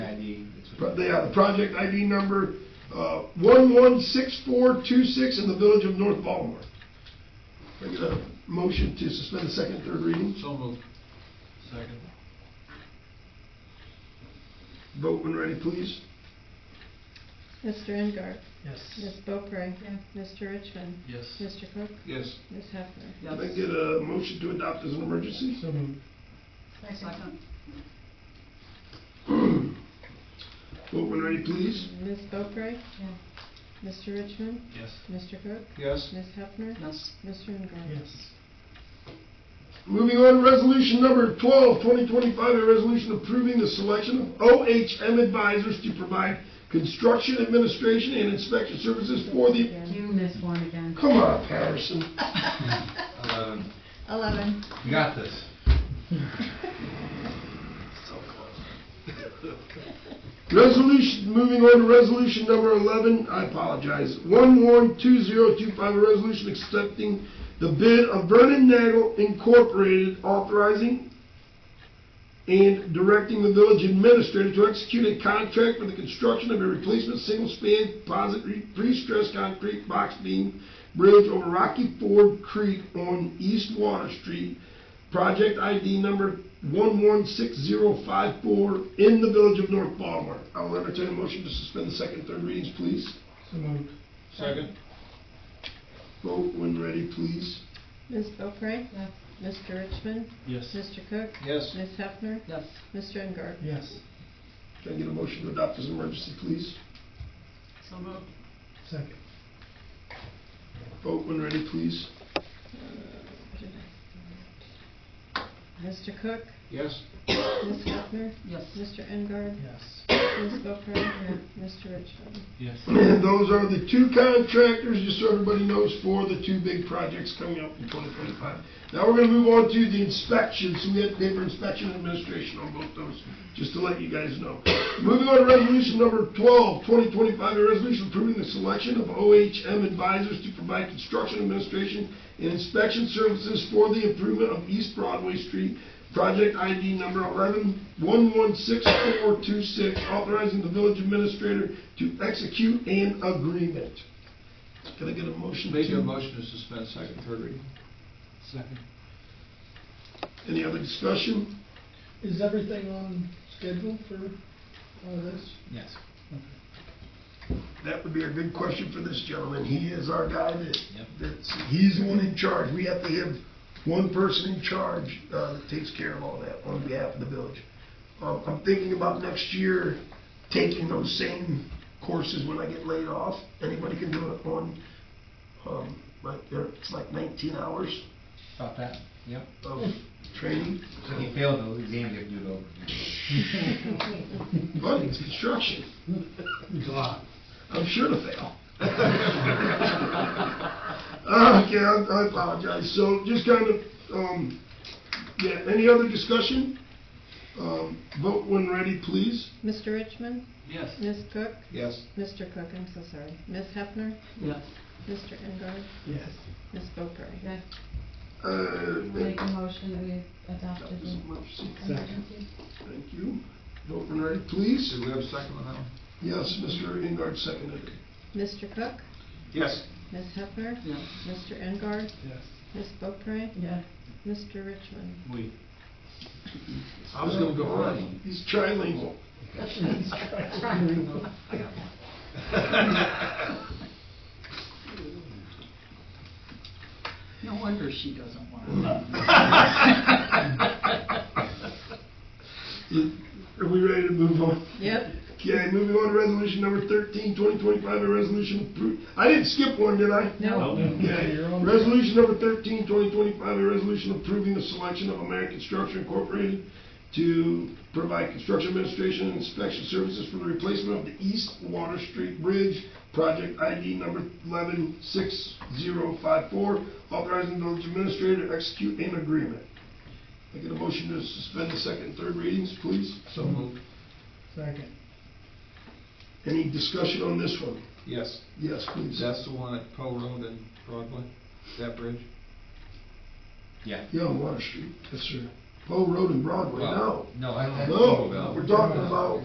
pro- they have the project ID number, uh, one one six four two six in the village of North Baltimore. Can I get a motion to suspend the second, third reading? So moved. Second. Vote when ready, please. Mr. Engard? Ms. Yes. Boeckrey? Mr. Richmond? Yes. Mr. Cook? Yes. Ms. Hefner? Can I get a motion to adopt as an emergency? So moved. Second. Vote when ready, please. Ms. Boeckrey? Yeah. Mr. Richmond? Yes. Mr. Cook? Yes. Ms. Hefner? Yes. Mr. Engard? Moving on, resolution number 12, 2025, a resolution approving the selection of OHM advisors to provide construction administration and inspection services for the, Again. You missed one again. come on, Patterson. Um, Eleven. You got this. So close. Resolution, moving on to resolution number 11, I apologize, 112025, a resolution accepting the bid of Vernon Nagel Incorporated authorizing and directing the village administrator to execute a contract for the construction of a replacement single-span composite re- pre-stressed concrete box beam bridge over Rocky Ford Creek on East Water Street, project ID number 116054 in the village of North Baltimore. I will entertain a motion to suspend the second, and third readings, please. So moved. Second. Vote when ready, please. Ms. Boeckrey? Yes. Mr. Richmond? Yes. Mr. Cook? Yes. Ms. Hefner? Yes. Mr. Engard? Yes. Can I get a motion to adopt as an emergency, please? So moved. Second. Vote when ready, please. Mr. Cook? Yes. Ms. Hefner? Yes. Mr. Engard? Yes. Ms. Boeckrey? Mr. Richmond? Yes. And those are the two contractors, just so everybody knows, for the two big projects coming up in 2025. Now we're going to move on to the inspections, we had to pay for inspection and administration on both those, just to let you guys know. Moving on to resolution number 12, 2025, a resolution approving the selection of OHM advisors to provide construction administration and inspection services for the improvement of East Broadway Street, project ID number 11116426, authorizing the village administrator to execute an agreement. Can I get a motion to? Make a motion to suspend second, third reading. Second. Any other discussion? Is everything on schedule for all this? Yes. That would be a good question for this gentleman. He is our guy that, Yep. that's, he's the one in charge. We have to have one person in charge, uh, that takes care of all that on behalf of the village. Um, I'm thinking about next year, taking those same courses when I get laid off. Anybody can do it on, um, like, there- it's like nineteen hours About that? Yep. of training. So if you fail the exam, you have to do it over. But it's construction. God. I'm sure to fail. Okay, I I apologize. So just kind of, um, yeah, any other discussion? Um, Vote when ready, please. Mr. Richmond? Yes. Ms. Cook? Yes. Mr. Cook, I'm so sorry. Ms. Hefner? Yes. Mr. Engard? Yes. Ms. Boeckrey? Yes. Uh, Make a motion that we adopt that it. was in emergency. emergency. Thank you. Vote when ready, please. Do we have a second on that one? Yes, Mr. Ingard seconded. it. Mr. Cook? Yes. Ms. Hefner? Yes. Mr. Engard? Yes. Ms. Boeckrey? Yeah. Mr. Richmond? We. I was gonna go running. He's trilingual. I got one. No wonder she doesn't want it. Are we ready to move on? Yep. Okay, moving on to resolution number 13, 2025, a resolution approved. I didn't skip one, did I? No. Okay, resolution number 13, 2025, a resolution approving the selection of American Structure Incorporated to provide construction administration and inspection services for the replacement of the East Water Street Bridge, project ID number 116054, authorizing the village administrator to execute an agreement. Can I get a motion to suspend the second and third readings, please? So moved. Second. Any discussion on this one? Yes. Yes, please. That's the one at Poe Road and Broadway, that bridge? Yeah. Yeah, on Water Street. Yes, sir. Poe Road and Broadway, no. No, I, I. No, we're talking about